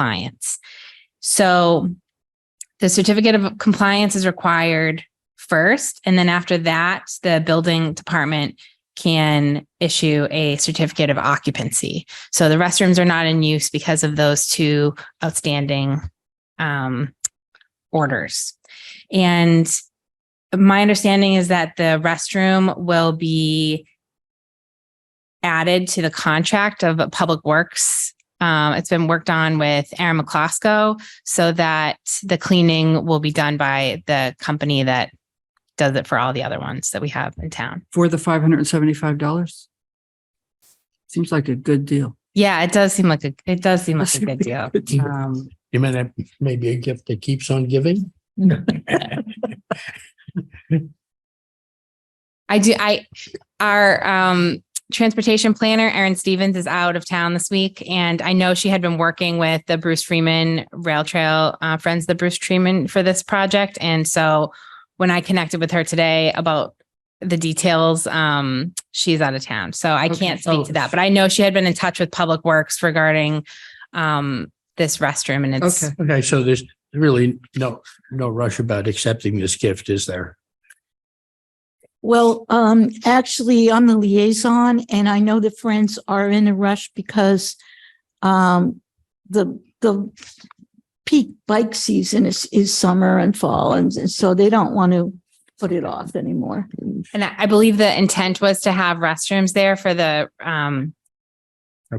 compliance. So the certificate of compliance is required first, and then after that, the building department can issue a certificate of occupancy. So the restrooms are not in use because of those two outstanding um, orders. And my understanding is that the restroom will be added to the contract of Public Works. Um, it's been worked on with Aaron McClosco so that the cleaning will be done by the company that does it for all the other ones that we have in town. for the five hundred and seventy-five dollars? Seems like a good deal. Yeah, it does seem like a, it does seem like a good deal. Um, You mean that may be a gift that keeps on giving? I do, I, our, um, transportation planner, Erin Stevens is out of town this week. And I know she had been working with the Bruce Freeman Rail Trail, uh, Friends of the Bruce Freeman for this project. And so when I connected with her today about the details, um, she's out of town. So I Okay. can't speak Oh. to that, but I know she had been in touch with Public Works regarding, um, this restroom and it's, Okay. Okay, so there's really no, no rush about accepting this gift, is there? Well, um, actually, I'm the liaison and I know the friends are in a rush because um, the, the peak bike season is, is summer and fall. And and so they don't want to put it off anymore. And I I believe the intent was to have restrooms there for the, um,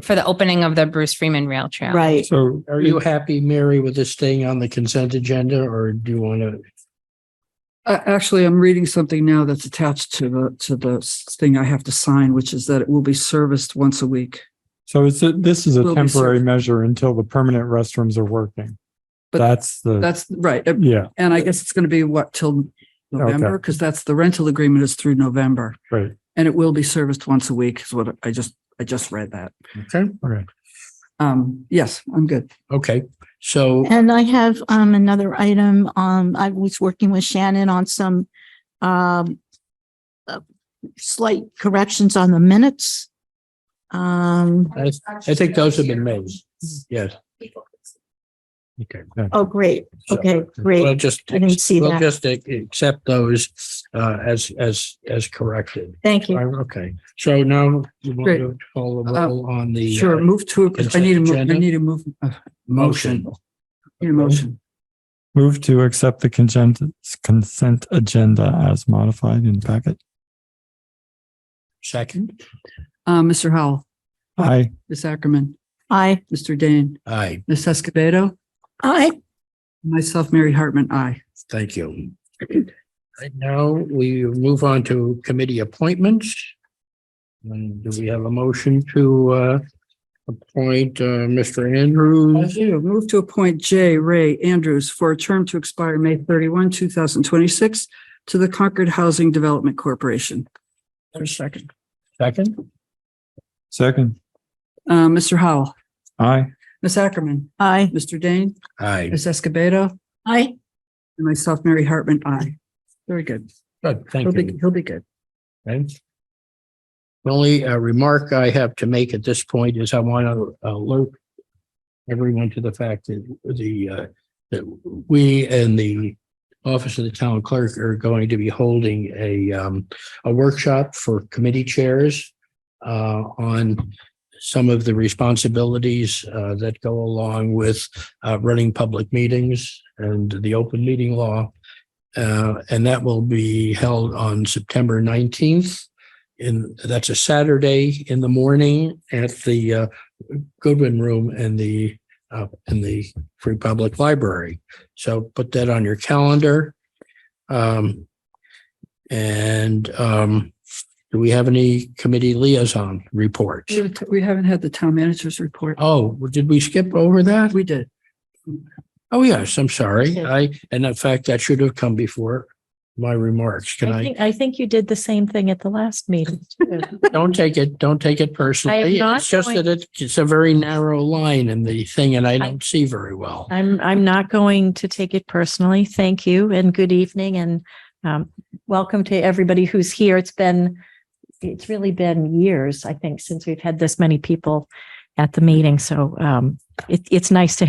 for the opening of the Bruce Freeman Rail Trail. Right. So are you happy, Mary, with this staying on the consent agenda or do you want to? Uh, actually, I'm reading something now that's attached to the, to the s- thing I have to sign, which is that it will be serviced once a week. So it's, a- this is Will a be temporary served. measure until the permanent restrooms are working. But That's the, That's right. Uh, yeah, And I guess it's going to be what till November? Because that's the rental agreement is through November right, and it will be serviced once a week is what I just, I just read that. Okay, okay. Um, yes, I'm good. okay, so, And I have um, another item. Um, I was working with Shannon on some um, uh, slight corrections on the minutes. Um, I, I think those have been made. Yes. Okay. oh, great. so Okay, We'll great. just, I didn't see we'll that. just ac- accept those, uh, as, as, as corrected. Thank you. Right, Okay, so now you want Great. to call the roll on the. uh, Sure, move to, I need a, mo- I Consent agenda? need a move, uh, motion, need a motion. Move to accept the consent, consent agenda as modified in packet. Second, Uh, Mr. Howell, Aye. Ms. Ackerman, Aye. Mr. Dane, aye, Ms. Escobedo, Aye. myself, Mary Hartman, aye. thank you. Right now, we move on to committee appointments. And do we have a motion to uh appoint uh Mr. I Andrews? do. Move to appoint J. Ray Andrews for a term to expire May 31, 2026 to the Concord Housing Development Corporation. Second. Second, Second. Uh, Mr. Howell, Aye. Ms. Ackerman, Aye. Mr. Dane, aye, Ms. Escobedo, Aye. and myself, Mary Hartman, aye. Very good. good, He'll thank be, you. he'll be good. Okay. The Only uh, remark I have to make at this point is I want to alert everyone to the fact that the, uh, that we and the Office of the Town Clerk are going to be holding a, um, a workshop for committee chairs uh, on some of the responsibilities uh, that go along with uh, running public meetings and the open meeting law. Uh, and that will be held on September nineteenth. And that's a Saturday in the morning at the uh, Goodwin Room and the uh, in the Free Public Library. So put that on your calendar. Um, and um, do we have any committee liaison reports? We haven't- We haven't had the town manager's report. Oh, did we skip over that? We did. Oh, yes, I'm sorry. Okay. I, and in fact, that should have come before my remarks. Can I I, think, I think you did the same thing at the last meeting. don't take it, don't take it personally. not It's just going- that it- it's a very narrow line in the thing and I I- don't see very well. I'm, I'm not going to take it personally. Thank you and good evening and um, welcome to everybody who's here. It's been, it's really been years, I think, since we've had this many people at the meeting. So um, it, it's nice to